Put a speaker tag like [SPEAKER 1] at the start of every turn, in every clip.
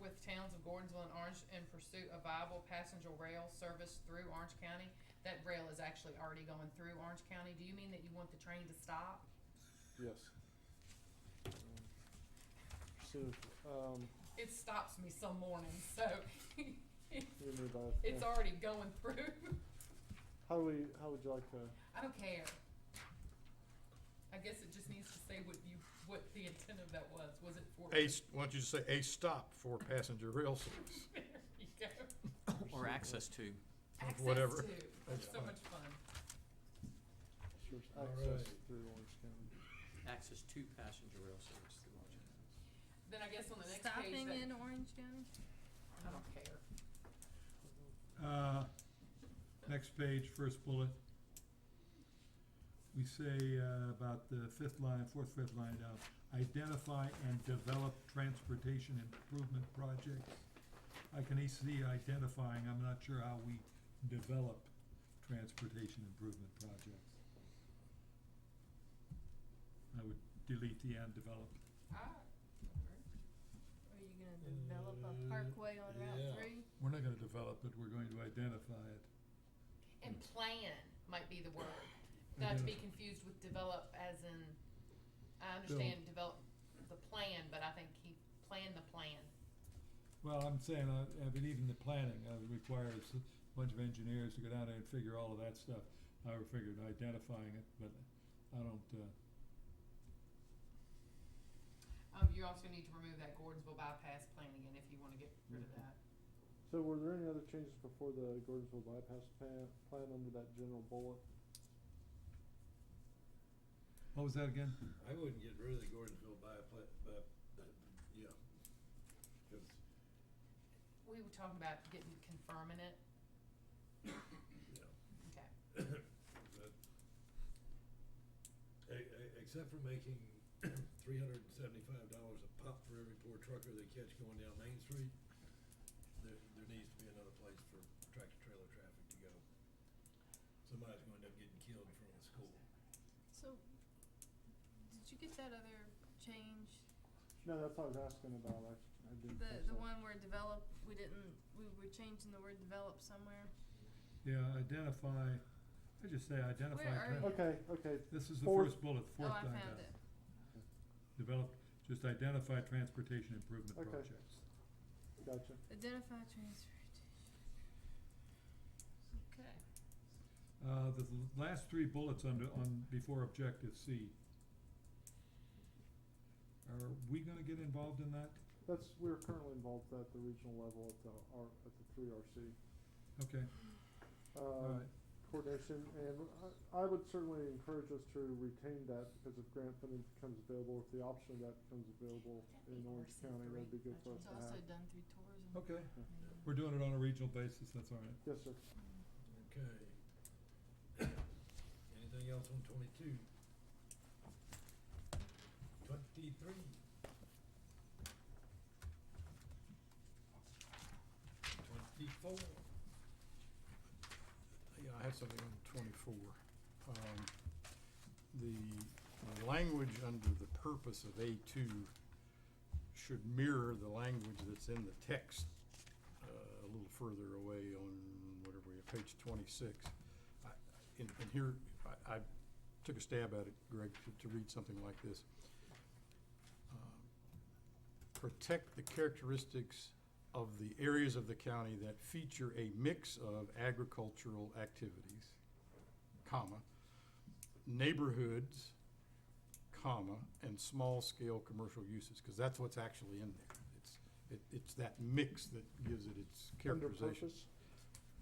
[SPEAKER 1] with towns of Gordonsville and Orange in pursuit of viable passenger rail service through Orange County. That rail is actually already going through Orange County. Do you mean that you want the train to stop?
[SPEAKER 2] Yes. So, um,
[SPEAKER 1] It stops me some mornings, so
[SPEAKER 2] we move on.
[SPEAKER 1] it's
[SPEAKER 2] Yeah.
[SPEAKER 1] already going through.
[SPEAKER 2] How do we, how would you like to,
[SPEAKER 1] I don't care. I guess it just needs to say what you, what the intent of that was. Was it for?
[SPEAKER 3] A, s- why don't you just say a stop for passenger rail service?
[SPEAKER 1] There you go.
[SPEAKER 4] Or access to.
[SPEAKER 1] Access
[SPEAKER 3] Whatever.
[SPEAKER 1] to.
[SPEAKER 3] That's
[SPEAKER 1] So
[SPEAKER 3] fine.
[SPEAKER 1] much fun.
[SPEAKER 2] sure, it's
[SPEAKER 3] All
[SPEAKER 2] access
[SPEAKER 3] right.
[SPEAKER 2] through Orange County?
[SPEAKER 4] Access to passenger rail service through Orange County.
[SPEAKER 1] Then I guess on the next page,
[SPEAKER 5] Stopping
[SPEAKER 1] that,
[SPEAKER 5] in Orange County?
[SPEAKER 1] I don't care.
[SPEAKER 6] Uh, next page, first bullet. We say, uh, about the fifth line, fourth, fifth line down, identify and develop transportation improvement projects. I can see identifying, I'm not sure how we develop transportation improvement projects. I would delete the and develop.
[SPEAKER 1] I-
[SPEAKER 5] Are you gonna develop a
[SPEAKER 6] Uh,
[SPEAKER 5] parkway on
[SPEAKER 3] yeah.
[SPEAKER 5] Route three?
[SPEAKER 6] We're not gonna develop it, we're going to identify it.
[SPEAKER 1] And plan might be the word, not to be confused with develop as in, I understand develop the plan, but I think he planned the plan.
[SPEAKER 6] Well, I'm saying, I, I mean, even the planning, uh, requires a bunch of engineers to go down there and figure all of that stuff. I would figure identifying it, but I don't, uh,
[SPEAKER 1] Um, you also need to remove that Gordonsville bypass plan again if you wanna get rid of that.
[SPEAKER 2] So were there any other changes before the Gordonsville bypass plan, plan under that general bullet?
[SPEAKER 6] what was that again?
[SPEAKER 7] I wouldn't get rid of the Gordonsville bypass, but, yeah. Cause
[SPEAKER 1] We were talking about getting, confirming it.
[SPEAKER 7] Yeah.
[SPEAKER 1] Okay,
[SPEAKER 7] But, e- e- except for making three hundred and seventy-five dollars a pop for every poor trucker they catch going down Main Street, there, there needs to be another place for tractor-trailer traffic to go. Somebody's gonna end up getting killed in front of the school.
[SPEAKER 5] So, did you get that other change?
[SPEAKER 2] No, that's what I was asking about, I, I didn't. catch
[SPEAKER 5] The, the
[SPEAKER 2] that.
[SPEAKER 5] one where develop, we didn't, we were changing the word develop somewhere?
[SPEAKER 6] Yeah, identify, I just say identify.
[SPEAKER 5] Where are
[SPEAKER 6] tra-
[SPEAKER 5] you?
[SPEAKER 2] Okay, okay,
[SPEAKER 6] This is the
[SPEAKER 2] Fourth.
[SPEAKER 6] first bullet,
[SPEAKER 5] Oh,
[SPEAKER 6] fourth
[SPEAKER 5] I
[SPEAKER 6] line down.
[SPEAKER 5] found it.
[SPEAKER 6] Develop, just identify transportation improvement
[SPEAKER 2] Okay.
[SPEAKER 6] projects.
[SPEAKER 2] gotcha.
[SPEAKER 5] Identify transportation. Okay.
[SPEAKER 6] Uh, the l- last three bullets under, on, before objective C. Are we gonna get involved in that?
[SPEAKER 2] That's, we're currently involved at the regional level at the R, at the three RC.
[SPEAKER 6] Okay,
[SPEAKER 2] Uh,
[SPEAKER 6] alright.
[SPEAKER 2] coordination, and I- I would certainly encourage us to retain that because if grant funding becomes available, if the option of that becomes available in Orange County, that'd be good for us
[SPEAKER 5] It's
[SPEAKER 2] to
[SPEAKER 5] also
[SPEAKER 2] have.
[SPEAKER 5] done through tourism.
[SPEAKER 6] Okay, we're doing it on a regional basis, that's all right.
[SPEAKER 2] Yes, sir.
[SPEAKER 7] Okay. Anything else on twenty-two? Twenty-three. Twenty-four.
[SPEAKER 3] Yeah, I had something on twenty-four. Um, the language under the purpose of A two should mirror the language that's in the text, uh, a little further away on whatever, we are, page twenty-six. I- And, and here, I, I took a stab at it, Greg, to, to read something like this. Um, Protect the characteristics of the areas of the county that feature a mix of agricultural activities, comma, neighborhoods, comma, and small-scale commercial uses, because that's what's actually in there. It's, it, it's that mix that gives it its
[SPEAKER 2] Under
[SPEAKER 3] characterization.
[SPEAKER 2] purpose,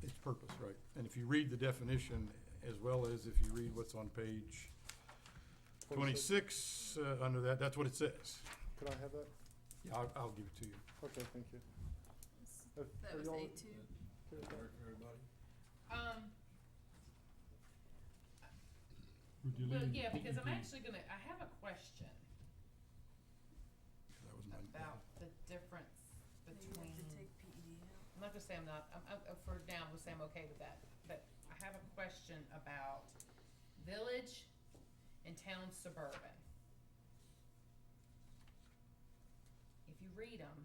[SPEAKER 3] Its purpose, right. And if you read the definition, as well as if you read what's on page twenty-six, uh, under that, that's what it says.
[SPEAKER 2] Could I have that?
[SPEAKER 3] Yeah, I'll, I'll give it to you.
[SPEAKER 2] Okay, thank you.
[SPEAKER 5] It's-
[SPEAKER 2] If-
[SPEAKER 5] That
[SPEAKER 2] are
[SPEAKER 5] was
[SPEAKER 2] y'all
[SPEAKER 5] A two.
[SPEAKER 2] okay with
[SPEAKER 7] Does that
[SPEAKER 2] that?
[SPEAKER 7] work for everybody?
[SPEAKER 1] um.
[SPEAKER 6] We're
[SPEAKER 1] Well,
[SPEAKER 6] deleting
[SPEAKER 1] yeah, because I'm
[SPEAKER 6] DED.
[SPEAKER 1] actually gonna, I have a question
[SPEAKER 3] That was my.
[SPEAKER 1] about the difference
[SPEAKER 5] Maybe
[SPEAKER 1] between,
[SPEAKER 5] we have to
[SPEAKER 1] I'm
[SPEAKER 5] take E PED out.
[SPEAKER 1] not gonna say I'm not, I'm, I'm, uh, for now, I'm gonna say I'm okay with that, but I have a question about village and town suburban. If you read them,